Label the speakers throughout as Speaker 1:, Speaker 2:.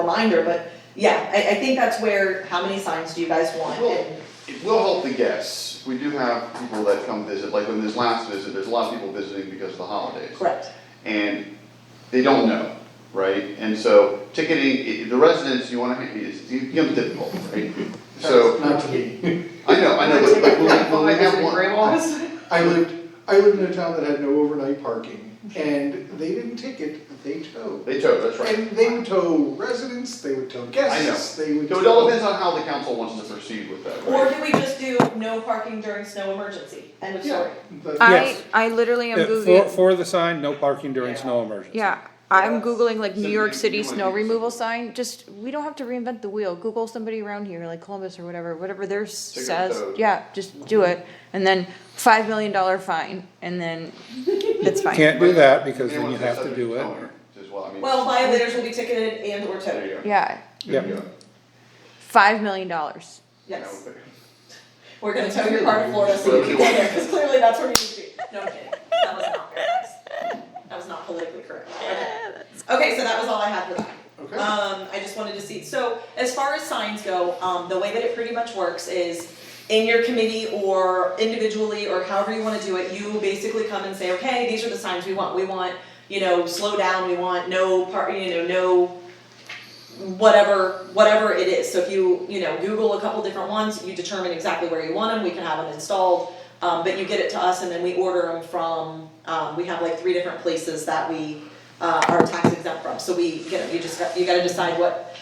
Speaker 1: reminder, but yeah, I, I think that's where, how many signs do you guys want?
Speaker 2: Well,
Speaker 1: And-
Speaker 2: It will help the guests. We do have people that come visit, like when this last visit, there's a lot of people visiting because of the holidays.
Speaker 1: Correct,
Speaker 2: And they don't know, right? And so ticketing, i- the residents, you wanna, ha- it's, it becomes difficult, right? So,
Speaker 3: Not to be.
Speaker 2: I know, I know, but, but will, we- will we have one?
Speaker 3: I lived, I lived in a town that had no overnight parking, and they didn't ticket, they towed.
Speaker 2: They tow, that's right.
Speaker 3: And they would tow residents, they would tow guests, they would
Speaker 2: So
Speaker 3: tow.
Speaker 2: it all depends on how the council wants to proceed with that,
Speaker 1: or
Speaker 2: right?
Speaker 1: do we just do no parking during snow emergency, end of story?
Speaker 3: Yeah, but-
Speaker 4: I,
Speaker 5: Yes.
Speaker 4: I literally am
Speaker 5: Yeah, For,
Speaker 4: Googling,
Speaker 5: for the sign, no parking during snow emergency.
Speaker 4: yeah, I'm
Speaker 1: Yes.
Speaker 4: Googling like
Speaker 2: So
Speaker 4: New York
Speaker 2: you-
Speaker 4: City
Speaker 2: you wanna
Speaker 4: snow
Speaker 2: do-
Speaker 4: removal sign, just, we don't have to reinvent the wheel, Google somebody around here, like Columbus or whatever, whatever theirs
Speaker 2: Take it
Speaker 4: says,
Speaker 2: out.
Speaker 4: yeah, just do it. And then five million dollar fine, and then it's fine,
Speaker 5: Can't do that because then
Speaker 2: Anyone
Speaker 5: you
Speaker 2: that's
Speaker 5: have to
Speaker 2: subject
Speaker 5: do it.
Speaker 2: towing As well, I mean.
Speaker 1: Well, violators will be ticketed and or
Speaker 2: There you
Speaker 1: towed,
Speaker 2: go.
Speaker 4: yeah,
Speaker 2: There you
Speaker 5: Yep.
Speaker 2: go.
Speaker 4: five million dollars.
Speaker 1: yes.
Speaker 2: Now,
Speaker 1: We're gonna tow your car to Florida so you can get there, because clearly that's where you need to be. No, I'm kidding. That was not very nice. That was not politically correct. Okay. Okay, so that was all I had for that.
Speaker 3: Okay.
Speaker 1: Um, I just wanted to see, so as far as signs go, um, the way that it pretty much works is in your committee or individually or however you wanna do it, you basically come and say, okay, these are the signs we want. We want, you know, slow down, we want no part, you know, no whatever whatever it is. So if you you know Google a couple different ones, you determine exactly where you want them. We can have them installed, um, but you get it to us, and then we order them from. Um, we have like three different places that we uh, are tax exempt from. So we get you just got, you got to decide what.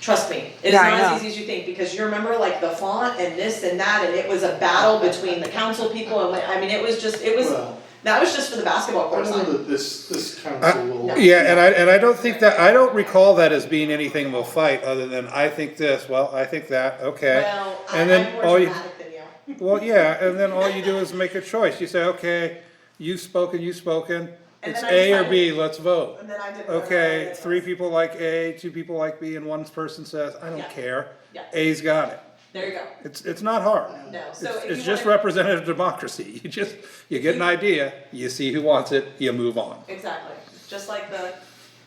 Speaker 1: Trust me, it's
Speaker 4: Yeah, I
Speaker 1: not as
Speaker 4: know.
Speaker 1: easy as you think because you remember like the font and this and that, and it was a battle between the council people and like, I mean it was just it was
Speaker 3: Well,
Speaker 1: that was just for the basketball
Speaker 3: I
Speaker 1: court
Speaker 3: don't know
Speaker 1: sign.
Speaker 3: that this, this council will.
Speaker 5: Uh, Yeah, and I, and I don't think that, I don't recall that as being anything of a fight, other than I think this, well, I think that, okay.
Speaker 1: Well, I,
Speaker 5: And then
Speaker 1: I'm more
Speaker 5: all you-
Speaker 1: dramatic than you.
Speaker 5: Well, yeah, and then all you do is make a choice, you say, okay, you've spoken, you've spoken,
Speaker 1: And
Speaker 5: it's
Speaker 1: then I
Speaker 5: A or
Speaker 1: decide-
Speaker 5: B, let's vote.
Speaker 1: And then I did. whatever I
Speaker 5: Okay,
Speaker 1: did.
Speaker 5: three people like A, two people like B, and one person says, I
Speaker 1: Yeah.
Speaker 5: don't care,
Speaker 1: Yeah.
Speaker 5: A's got it.
Speaker 1: There you go.
Speaker 5: It's, it's not hard.
Speaker 1: No, so
Speaker 5: It's,
Speaker 1: if
Speaker 5: it's
Speaker 1: you
Speaker 5: just
Speaker 1: wanna,
Speaker 5: representative democracy. You just, you get an idea, you see who wants it, you move on.
Speaker 1: exactly, just like the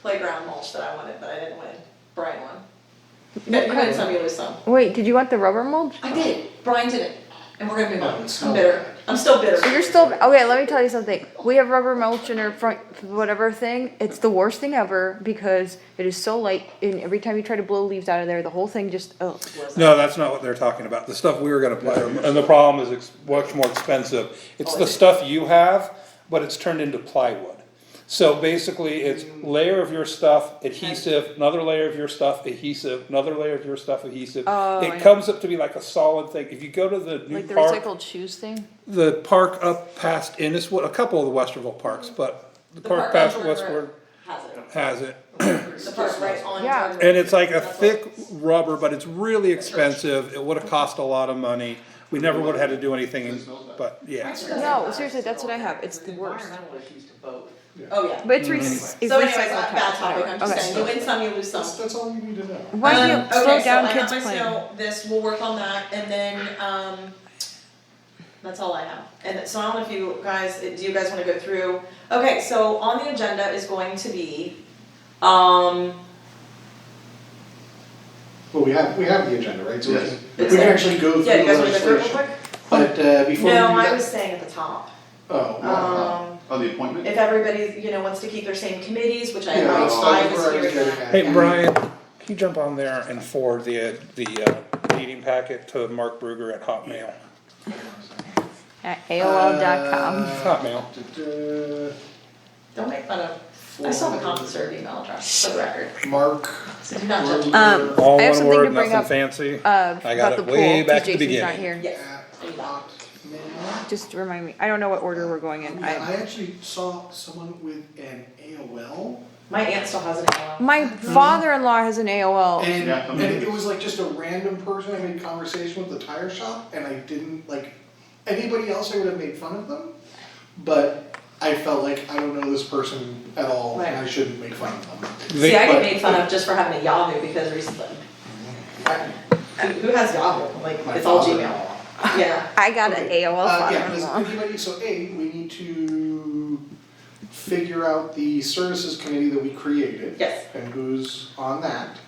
Speaker 1: playground mulch that I wanted, but I didn't win. Brian won. But you win some, you lose some.
Speaker 4: Wait, did you want the rubber mulch?
Speaker 1: I did. Brian did it, and we're gonna move
Speaker 3: Oh,
Speaker 1: on.
Speaker 3: it's
Speaker 1: I'm
Speaker 3: not
Speaker 1: bitter.
Speaker 3: bad.
Speaker 1: I'm still
Speaker 4: So
Speaker 1: bitter.
Speaker 4: you're still, okay, let me tell you something, we have rubber mulch in our front, whatever thing, it's the worst thing ever, because it is so light, and every time you try to blow leaves out of there, the whole thing just, oh.
Speaker 5: No, that's not what they're talking about. The stuff we were gonna play, and the problem is it's much more expensive. It's
Speaker 1: Oh,
Speaker 5: the
Speaker 1: is it?
Speaker 5: stuff you have, but it's turned into plywood. So basically, it's layer of your stuff, adhesive, another layer of your stuff, adhesive, another layer of your stuff, adhesive.
Speaker 4: Oh, I
Speaker 5: It
Speaker 4: know.
Speaker 5: comes up to be like a solid thing. If you go to the new
Speaker 4: Like the
Speaker 5: park,
Speaker 4: recycled shoes thing?
Speaker 5: the park up past Inniswood, a couple of the Westerville parks, but the
Speaker 1: The
Speaker 5: park
Speaker 1: park on
Speaker 5: past
Speaker 1: Jordan Road
Speaker 5: Westward
Speaker 1: Has it.
Speaker 5: has it.
Speaker 1: The park right on.
Speaker 4: Yeah.
Speaker 1: Jordan Road.
Speaker 5: And it's like a
Speaker 1: That's what-
Speaker 5: thick rubber, but it's really expensive, it would've cost a lot of money, we never would've had to do anything, but yeah.
Speaker 4: No, seriously, that's what I have, it's the worst.
Speaker 1: Oh, yeah.
Speaker 4: But it's
Speaker 5: Mm.
Speaker 4: re- it's
Speaker 1: So anyways, not
Speaker 4: recycled
Speaker 1: a bad
Speaker 4: plastic,
Speaker 1: topic, I'm just
Speaker 4: okay.
Speaker 1: saying, you win some, you lose some.
Speaker 3: That's, that's all we need to know.
Speaker 4: Why do
Speaker 1: Um,
Speaker 4: you slow down
Speaker 1: Okay,
Speaker 4: kids
Speaker 1: so I
Speaker 4: playing?
Speaker 1: have my snow, this, we'll work on that, and then, um, that's all I have. And so I don't know if you guys, do you guys wanna go through? Okay, so on the agenda is going to be, um,
Speaker 3: Well, we have, we have the agenda, right? So we
Speaker 2: Yes.
Speaker 3: can, we can actually go through
Speaker 1: yeah, you
Speaker 3: the
Speaker 1: guys wanna go through it real
Speaker 3: legislation.
Speaker 1: quick?
Speaker 3: But, uh, before we do
Speaker 1: No, I was
Speaker 3: that.
Speaker 1: saying at the top,
Speaker 3: Oh, well,
Speaker 1: um,
Speaker 2: Oh, the appointment?
Speaker 1: if everybody, you know, wants to keep their same committees, which I,
Speaker 3: yeah,
Speaker 1: I
Speaker 3: let's start
Speaker 1: I
Speaker 3: with where I
Speaker 1: was
Speaker 3: was
Speaker 1: hearing
Speaker 3: getting
Speaker 1: that.
Speaker 3: at.
Speaker 5: Hey, Brian, can you jump on there and forward the, the uh, meeting packet to Mark Bruger at Hotmail?
Speaker 4: At AOL.com.
Speaker 5: Hotmail.
Speaker 3: Uh,
Speaker 1: Don't make fun of, I still have a common serve email address, for the record,
Speaker 3: Mark.
Speaker 1: so do not judge me.
Speaker 4: Um,
Speaker 5: Uh, All
Speaker 4: I have
Speaker 5: one
Speaker 4: something to bring
Speaker 5: word, nothing
Speaker 4: up,
Speaker 5: fancy.
Speaker 4: uh,
Speaker 5: I got
Speaker 4: about the
Speaker 5: it way
Speaker 4: pool,
Speaker 5: back
Speaker 4: cause
Speaker 5: to the
Speaker 4: Jason's not here,
Speaker 5: beginning.
Speaker 1: Yes, do that.
Speaker 4: just to remind me, I don't know what order we're going in,
Speaker 3: Yeah, I
Speaker 4: I,
Speaker 3: actually saw someone with an AOL
Speaker 1: My aunt still has an email.
Speaker 4: my father-in-law has an
Speaker 1: Oh. Mm.
Speaker 4: AOL,
Speaker 3: and,
Speaker 2: Yeah.
Speaker 3: and it was like just a random person I made conversation with at the tire shop and I didn't like anybody else I would have made fun of them, but I felt like I don't know this person at all and I
Speaker 1: Right.
Speaker 3: shouldn't make fun of them.
Speaker 1: See, I
Speaker 5: They-
Speaker 1: get made fun of just for having a Yahoo because recently. Who who has Yahoo? Like,
Speaker 3: My
Speaker 1: it's all Gmail.
Speaker 3: father-in-law.
Speaker 1: Yeah.
Speaker 4: I got an
Speaker 3: Okay.
Speaker 4: AOL
Speaker 3: Uh, yeah, does
Speaker 4: father-in-law.
Speaker 3: anybody, so A, we need to figure out the services committee that we created
Speaker 1: Yes.
Speaker 3: and who's on that.